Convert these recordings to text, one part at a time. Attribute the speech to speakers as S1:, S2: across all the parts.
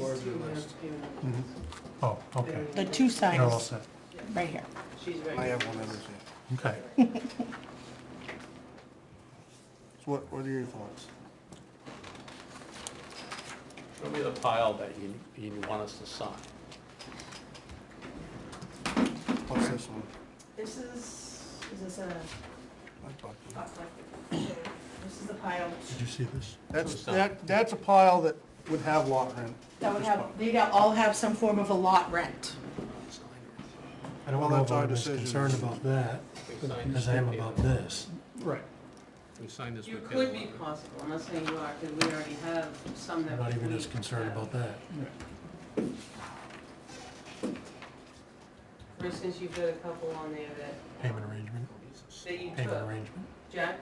S1: Where's your list?
S2: Oh, okay.
S3: The two
S2: They're all
S3: signs,
S2: set.
S3: right here.
S4: She's right.
S1: I have one other thing.
S2: Okay.
S1: So what, what are your thoughts?
S5: Show me the pile that you, you want us to sign.
S1: What's this one?
S4: This is, is this a,
S1: I thought you-
S4: not like, this is the pile
S2: Did you see this?
S1: That's, that, that's a pile that would have lot rent.
S4: that would have, they'd all have some form of a lot rent.
S2: I don't
S1: Well,
S2: know if
S1: that's our
S2: I'm as
S1: decision.
S2: concerned about that
S5: We signed
S2: as I am
S5: this
S2: about
S5: with
S2: this.
S1: Right.
S5: Taylor. We signed this
S6: You
S5: with Taylor.
S6: could be possible, I'm not saying you are, because we already have some
S2: I'm
S6: that.
S2: not even
S6: we
S2: as concerned
S6: have.
S2: about that.
S6: For instance, you've got a couple on there that,
S2: Payment arrangement,
S6: that you
S2: payment
S6: took,
S2: arrangement.
S6: Jack,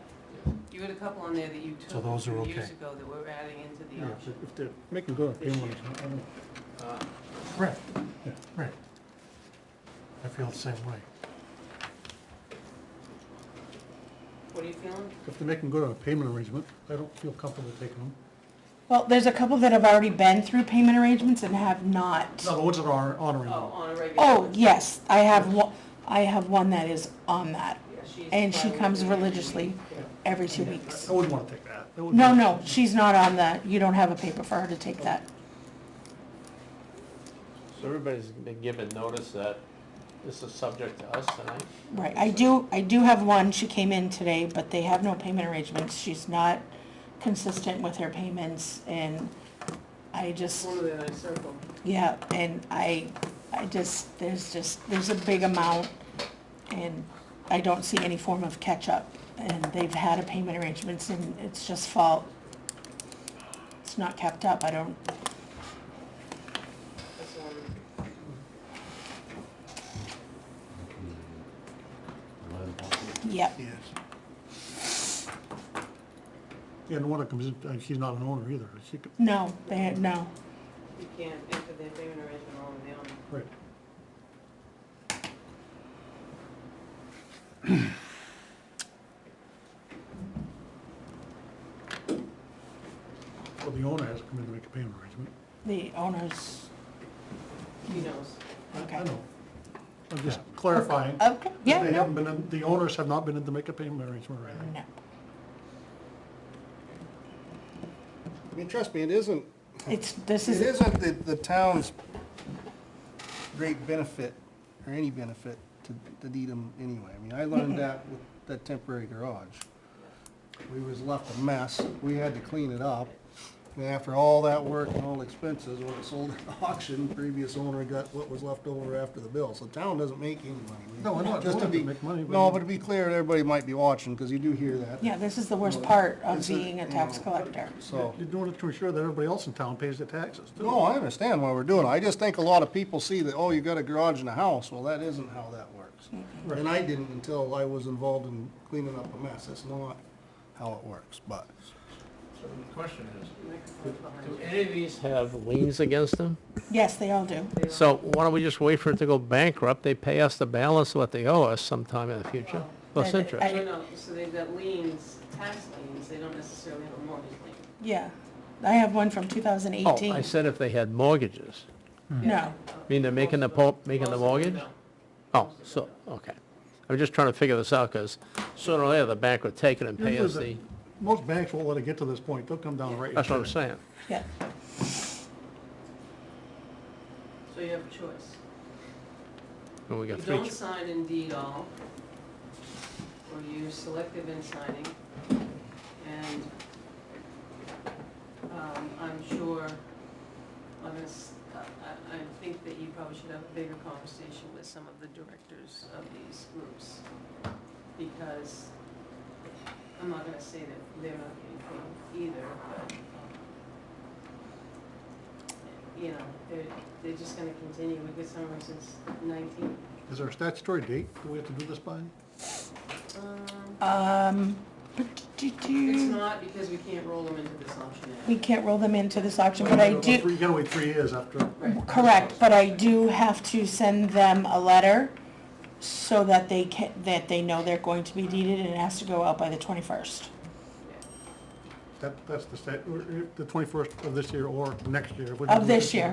S6: you had a couple on there that you took.
S2: So those are
S6: two
S2: okay.
S6: Years ago that we're adding into the auction.
S1: if they're making good,
S6: they want
S5: Uh,
S2: Right,
S1: Yeah.
S2: right. I feel the same way.
S6: What are you feeling?
S1: If they're making good on a payment arrangement, I don't feel comfortable taking them.
S3: Well, there's a couple that have already been through payment arrangements and have not.
S1: No, the ones that are
S6: Oh,
S1: honoring them.
S6: on a regular.
S3: Oh, yes, I have one, I have one that is on that,
S6: Yeah, she's
S3: and she
S6: probably-
S3: comes religiously every two weeks.
S1: I wouldn't wanna take that. That would
S3: Oh. No,
S1: be-
S3: no, she's not on that, you don't have a paper for her to take that.
S5: So everybody's been given notice that this is subject to us tonight?
S3: Right, I do, I do have one, she came in today, but they have no payment arrangements, she's not consistent with her payments, and I just,
S6: One of the other circle.
S3: yeah, and I, I just, there's just, there's a big amount, and I don't see any form of catch-up, and they've had a payment arrangements, and it's just fault. It's not kept up, I don't,
S6: That's the one.
S3: yep,
S1: Yes. Yeah, and the one that comes in, uh, she's not an owner either. She could,
S3: no, they had, no,
S6: You can't enter the payment arrangement on the owner.
S1: right. Well, the owner has to come in to make a payment arrangement.
S3: the owners,
S6: He knows.
S1: I- I
S3: okay.
S1: know. I'm just clarifying.
S3: Okay, yeah,
S1: They haven't
S3: no,
S1: been, in- the owners have not been in to make a payment arrangement or anything.
S3: no.
S7: I mean, trust me, it isn't,
S3: It's, this
S7: it
S3: is,
S7: isn't the, the town's great benefit, or any benefit to, to Needham anyway. I mean, I learned that with that temporary garage. We was left a mess, we had to clean it up. And after all that work and all expenses, when it sold at auction, previous owner got what was left over after the bill. So town doesn't make any money.
S1: No, I know, it
S7: Just to
S1: doesn't
S7: be-
S1: make money, but-
S7: No, but to be clear, everybody might be watching, because you do hear that.
S3: yeah, this is the worst part of
S7: It's a-
S3: being a tax collector.
S7: So.
S1: You're doing it to ensure that everybody else in town pays their taxes, too.
S7: No, I understand why we're doing it. I just think a lot of people see that, oh, you got a garage and a house. Well, that isn't how that works. And I didn't until I was involved in cleaning up a mess. That's not how it works, but.
S5: So the question is, do any of these have liens against them?
S3: Yes, they all do.
S5: So why don't we just wait for it to go bankrupt? They pay us the balance of what they owe us sometime in the future, plus
S3: Well,
S5: interest.
S3: I-
S6: No, no, so they've got liens, tax liens, they don't necessarily have a mortgage lien.
S3: Yeah. I have one from
S5: Oh,
S3: 2018.
S5: I said if they had mortgages.
S3: No,
S5: mean they're making the po- making the
S6: Most of them
S5: mortgage?
S6: don't.
S5: Oh, so, okay. I'm just trying to figure this out, because sooner or later, the bank would take it and pay
S1: Usually
S5: us the,
S1: the- Most banks won't let it get to this point. They'll come down right.
S5: that's what I'm saying.
S3: yeah.
S6: So you have a choice.
S5: And we
S6: You
S5: got three,
S6: don't
S5: ch-
S6: sign indeed all, or you're selective in signing, and um, I'm sure, on this, I, I- I think that you probably should have a bigger conversation with some of the directors of these groups, because I'm not gonna say that they're not getting paid either, but, um, you know, they're, they're just gonna continue, we get somewhere since nineteen,
S1: Is there a statutory date that we have to do this by?
S6: Um,
S3: Um, but do- do-
S6: It's not because we can't roll them into this option
S3: We
S6: yet.
S3: can't roll them into this auction, but I do,
S1: You gotta wait three years after.
S6: Right.
S3: correct, but I do have to send them a letter so that they can, that they know they're going to be deeded and it has to go out by the 21st.
S1: That, that's the stat, the twenty-first of this year or next year.
S3: Of this year.